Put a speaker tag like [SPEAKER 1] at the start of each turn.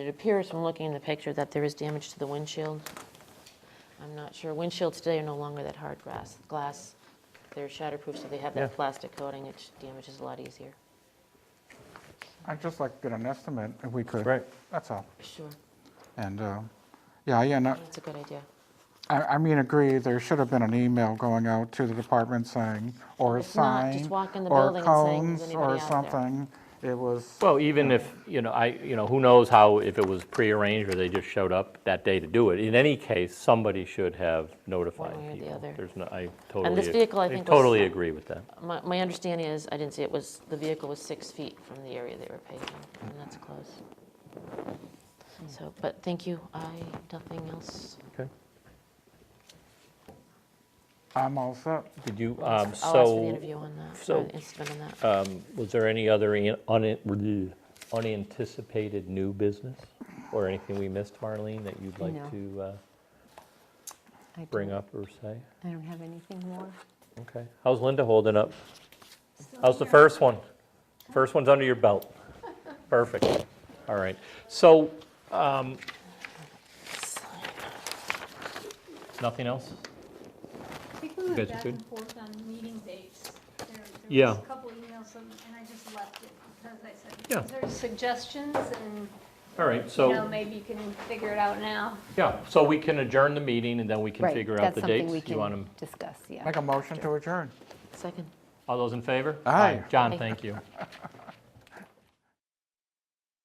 [SPEAKER 1] It appears from looking in the picture that there is damage to the windshield. I'm not sure. Windshields today are no longer that hard glass. Glass, they're shatterproof, so they have that
[SPEAKER 2] Yeah.
[SPEAKER 1] plastic coating. It damages a lot easier.
[SPEAKER 3] I'd just like to get an estimate if we could.
[SPEAKER 2] Right.
[SPEAKER 3] That's all.
[SPEAKER 1] Sure,
[SPEAKER 3] And, uh, yeah, yeah, no,
[SPEAKER 1] that's a good idea.
[SPEAKER 3] I, I mean, agree, there should have been an email going out to the department saying, or a
[SPEAKER 1] If not,
[SPEAKER 3] sign.
[SPEAKER 1] just walk in the
[SPEAKER 3] or
[SPEAKER 1] building and saying, "Is
[SPEAKER 3] cones
[SPEAKER 1] anybody out
[SPEAKER 3] Or
[SPEAKER 1] there?"
[SPEAKER 3] something. It was,
[SPEAKER 2] Well, even if, you know, I, you know, who knows how, if it was prearranged or they just showed up that day to do it. In any case, somebody should have notified
[SPEAKER 1] One way or the
[SPEAKER 2] people.
[SPEAKER 1] other.
[SPEAKER 2] There's no, I totally.
[SPEAKER 1] this vehicle, I think, was-
[SPEAKER 2] Totally agree with that.
[SPEAKER 1] My, my understanding is, I didn't see it, was the vehicle was six feet from the area they were paving, and that's close. So, but thank you. I, nothing else.
[SPEAKER 2] Okay.
[SPEAKER 3] I'm all set.
[SPEAKER 2] Did you, um,
[SPEAKER 1] I'll ask for the
[SPEAKER 2] so,
[SPEAKER 1] interview on that, or
[SPEAKER 2] so- uh,
[SPEAKER 1] the incident on that.
[SPEAKER 2] Um, was there any other in- un- unanticipated new business? Or anything we missed, Marlene, that you'd
[SPEAKER 4] No.
[SPEAKER 2] like to uh,
[SPEAKER 4] I
[SPEAKER 2] bring
[SPEAKER 4] don't-
[SPEAKER 2] up or say?
[SPEAKER 4] I don't have anything more.
[SPEAKER 2] Okay. How's Linda holding up? How's the first one? First one's under your belt. Perfect. All right. So, um, nothing else?
[SPEAKER 5] I think we
[SPEAKER 2] guys
[SPEAKER 5] went
[SPEAKER 2] are
[SPEAKER 5] back
[SPEAKER 2] good?
[SPEAKER 5] and forth on meeting dates. There- There
[SPEAKER 2] Yeah.
[SPEAKER 5] was a couple emails, and and I just left it because I
[SPEAKER 2] Yeah.
[SPEAKER 5] said, is there suggestions? And,
[SPEAKER 2] All right,
[SPEAKER 5] you know,
[SPEAKER 2] so,
[SPEAKER 5] maybe you can figure it out now.
[SPEAKER 2] yeah, so we can adjourn the meeting and then we can
[SPEAKER 4] Right,
[SPEAKER 2] figure out the
[SPEAKER 4] That's something
[SPEAKER 2] dates.
[SPEAKER 4] we
[SPEAKER 2] You want 'em-
[SPEAKER 4] can discuss, yeah.
[SPEAKER 3] Make a motion to adjourn.
[SPEAKER 1] Second.
[SPEAKER 2] all those in favor?
[SPEAKER 3] Aye.
[SPEAKER 2] John,
[SPEAKER 1] Aye.
[SPEAKER 2] thank you.